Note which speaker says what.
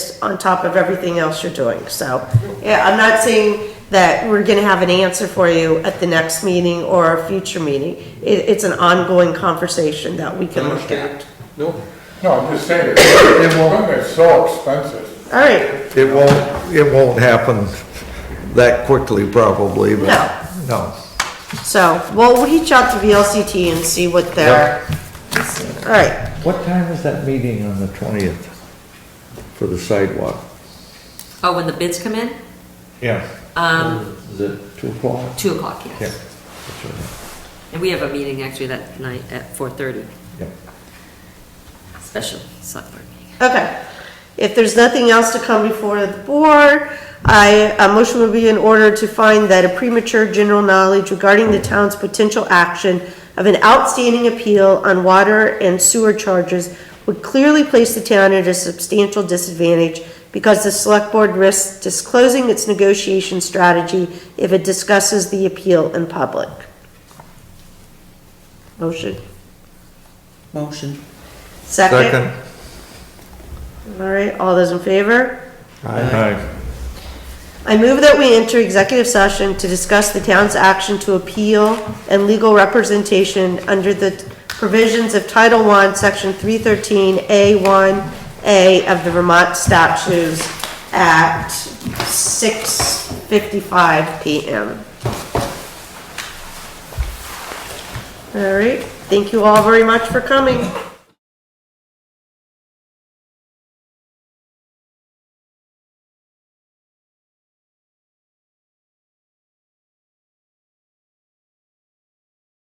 Speaker 1: on top of everything else you're doing, so. Yeah, I'm not saying that we're gonna have an answer for you at the next meeting or a future meeting. It, it's an ongoing conversation that we can look at.
Speaker 2: Understand? No,
Speaker 3: No, I'm just saying, equipment is so expensive.
Speaker 1: All right,
Speaker 4: It won't, it won't happen that quickly probably, but.
Speaker 1: No.
Speaker 4: No.
Speaker 1: so, we'll reach out to VLCT and see what their, all right,
Speaker 4: What time is that meeting on the twentieth for the sidewalk?
Speaker 5: Oh, when the bids come in?
Speaker 4: Yeah.
Speaker 5: Um,
Speaker 4: Is it two o'clock?
Speaker 5: two o'clock, yes.
Speaker 4: Yeah.
Speaker 5: And we have a meeting actually that night at four thirty,
Speaker 4: Yeah.
Speaker 5: special select board meeting.
Speaker 1: okay. If there's nothing else to come before the board, I, a motion would be in order to find that a premature general knowledge regarding the town's potential action of an outstanding appeal on water and sewer charges would clearly place the town at a substantial disadvantage because the select board risks disclosing its negotiation strategy if it discusses the appeal in public. Motion?
Speaker 6: Motion.
Speaker 1: Second?
Speaker 4: Second?
Speaker 1: All right, all those in favor?
Speaker 4: Aye.
Speaker 1: I move that we enter executive session to discuss the town's action to appeal and legal representation under the provisions of Title I, Section 313A1A of the Vermont statutes at 6:55 PM. All right, thank you all very much for coming.